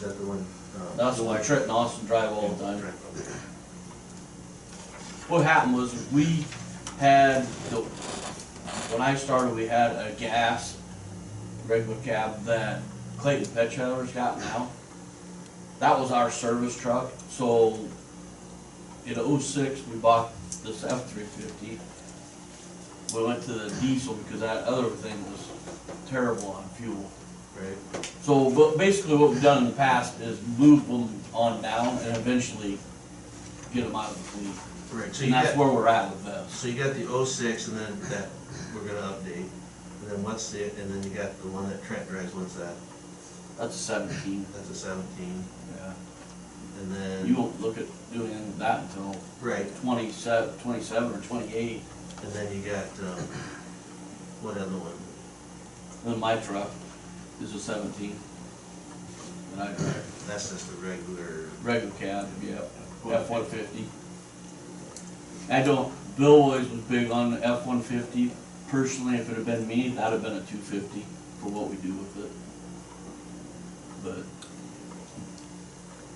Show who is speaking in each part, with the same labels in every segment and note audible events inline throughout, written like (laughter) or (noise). Speaker 1: that the one? uh,
Speaker 2: That's why Trent and Austin drive all the time.
Speaker 1: Trent, okay.
Speaker 2: What happened was we had the, when I started, we had a gas regular cab that Clayton Pet Chandler's got now. That was our service truck, so in oh-six, we bought this F three fifty. We went to the diesel because that other thing was terrible on fuel.
Speaker 1: Right,
Speaker 2: So, but basically what we've done in the past is move them on down and eventually get them out of the fleet.
Speaker 1: right, so you
Speaker 2: And that's
Speaker 1: got,
Speaker 2: where we're at with this.
Speaker 1: so you got the oh six and then that we're gonna update. And then what's the, and then you got the one that Trent drives, what's that?
Speaker 2: That's a seventeen,
Speaker 1: That's a seventeen.
Speaker 2: yeah.
Speaker 1: And then.
Speaker 2: You won't look at doing anything with that until
Speaker 1: Right,
Speaker 2: twenty-seven, twenty-seven or twenty-eight,
Speaker 1: and then you got, um, what other one?
Speaker 2: and then my truck is a seventeen. And I drive
Speaker 1: That's just the regular,
Speaker 2: regular cab, yeah, F-one fifty. I don't, Bill always was big on the F-one fifty. Personally, if it had been me, that'd have been a two fifty for what we do with it. But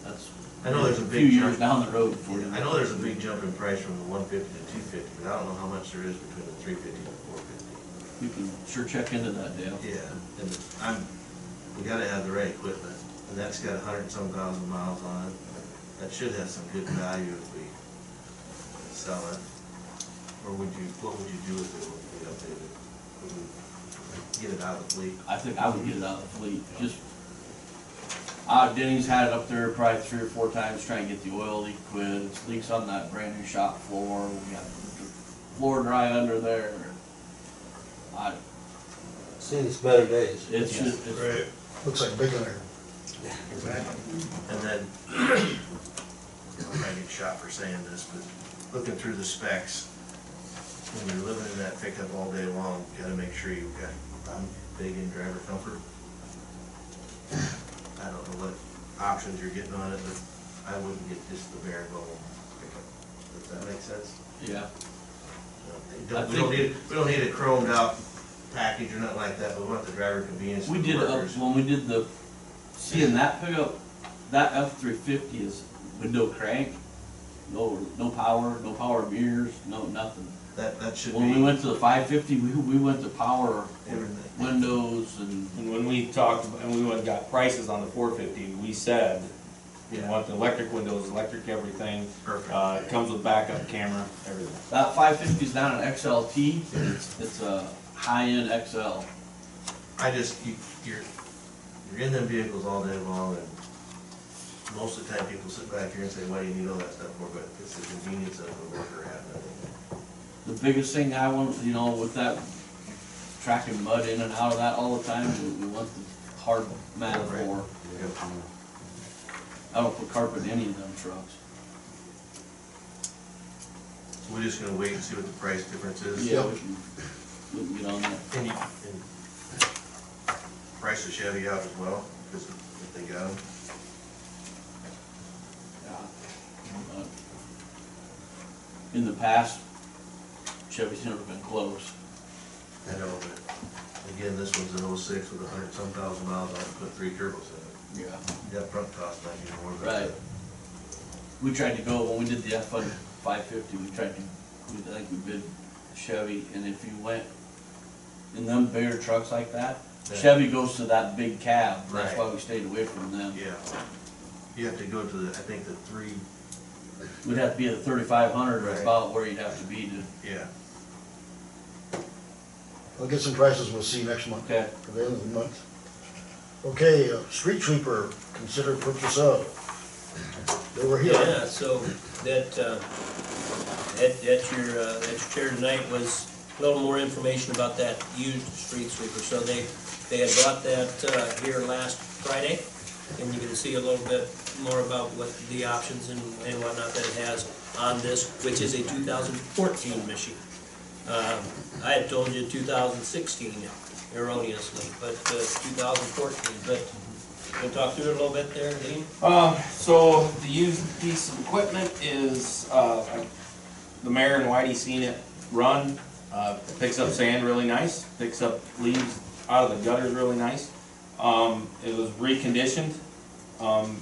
Speaker 2: that's
Speaker 1: I know there's a
Speaker 2: a few
Speaker 1: big jump.
Speaker 2: years down the road for you.
Speaker 1: I know there's a big jump in price from the one fifty to two fifty, but I don't know how much there is between the three fifty and four fifty.
Speaker 2: You can sure check into that, Dale.
Speaker 1: Yeah, and I'm, we gotta have the right equipment, and that's got a hundred and some thousand miles on it. That should have some good value if we sell it. Or would you, what would you do with it when we update it? Would we Get it out of the fleet?
Speaker 2: I think I would get it out of the fleet, just, uh, Denny's had it up there probably three or four times trying to get the oil leak quit, It's leaks on that brand new shop floor, we got the floor dry under there. I,
Speaker 3: Seen its better days.
Speaker 2: it's just, it's,
Speaker 4: Right.
Speaker 5: Looks like big iron.
Speaker 1: And then, (clears throat) I get shot for saying this, but looking through the specs, when you're living in that pickup all day long, you gotta make sure you've got, I'm big in driver comfort. I don't know what options you're getting on it, but I wouldn't get just the bare bone pickup. Does that make sense?
Speaker 2: yeah,
Speaker 1: We don't- We don't need, we don't need a chromed out package or nothing like that, but we want the driver convenience. for
Speaker 2: we did, up
Speaker 1: workers.
Speaker 2: when we did the, seeing that pickup, that F three fifty is with no crank, no, no power, no power mirrors, no, nothing.
Speaker 1: That, that should
Speaker 2: When we
Speaker 1: be
Speaker 2: went to the five fifty, we, we went to power
Speaker 1: everything.
Speaker 2: windows and
Speaker 4: And when we talked, and we went and got prices on the four fifty, we said, we
Speaker 1: Yeah.
Speaker 4: want the electric windows, electric everything,
Speaker 1: Perfect.
Speaker 4: uh, it comes with backup camera, everything.
Speaker 2: That five fifty is down an XLT, it's, it's a high-end XL.
Speaker 1: I just, you, you're, you're in them vehicles all day long, and most of the time, people sit back here and say, why do you need all that stuff for, but it's the convenience of the worker having it.
Speaker 2: The biggest thing I want, you know, with that tracking mud in and out of that all the time, we- we want the hard mat floor. I don't put carpet in any of them trucks.
Speaker 1: So we're just gonna wait and see what the price difference is.
Speaker 2: Yeah, we can, we can get on that.
Speaker 1: And you, and price the Chevy out as well, because if they got them,
Speaker 2: Uh, In the past, Chevy's never been close.
Speaker 1: I know, but again, this one's an oh-six with a hundred some thousand miles on it, put three turbos in it.
Speaker 2: Yeah.
Speaker 1: The upfront cost might be more, but.
Speaker 2: Right. We tried to go, when we did the F five fifty, we tried to, we, I think we bid Chevy, and if you went in them bigger trucks like that,
Speaker 1: Yeah.
Speaker 2: Chevy goes to that big cab, that's
Speaker 1: Right.
Speaker 2: why we stayed away from them.
Speaker 1: Yeah. You have to go to the, I think the three,
Speaker 2: We'd have to be at thirty-five hundred,
Speaker 1: Right.
Speaker 2: or about where you'd have to be to,
Speaker 1: yeah.
Speaker 5: We'll get some prices, we'll see next month,
Speaker 2: okay,
Speaker 5: for the end of the month. Okay, uh, street sweeper, consider purchase of. They were here.
Speaker 6: Yeah, so that, uh, that, that your, uh, that your chair tonight was a little more information about that used street sweeper. So they, they had brought that uh, here last Friday, and you can see a little bit more about what the options and and whatnot that it has on this, which is a 2014 machine. Um, I had told you 2016 erroneously, but uh, 2014, but we'll talk through it a little bit there, Dean.
Speaker 4: Uh, so the used piece of equipment is, uh, the mayor and Whitey seen it run. Uh, picks up sand really nice, picks up leaves out of the gutters really nice. Um, it was reconditioned, Um,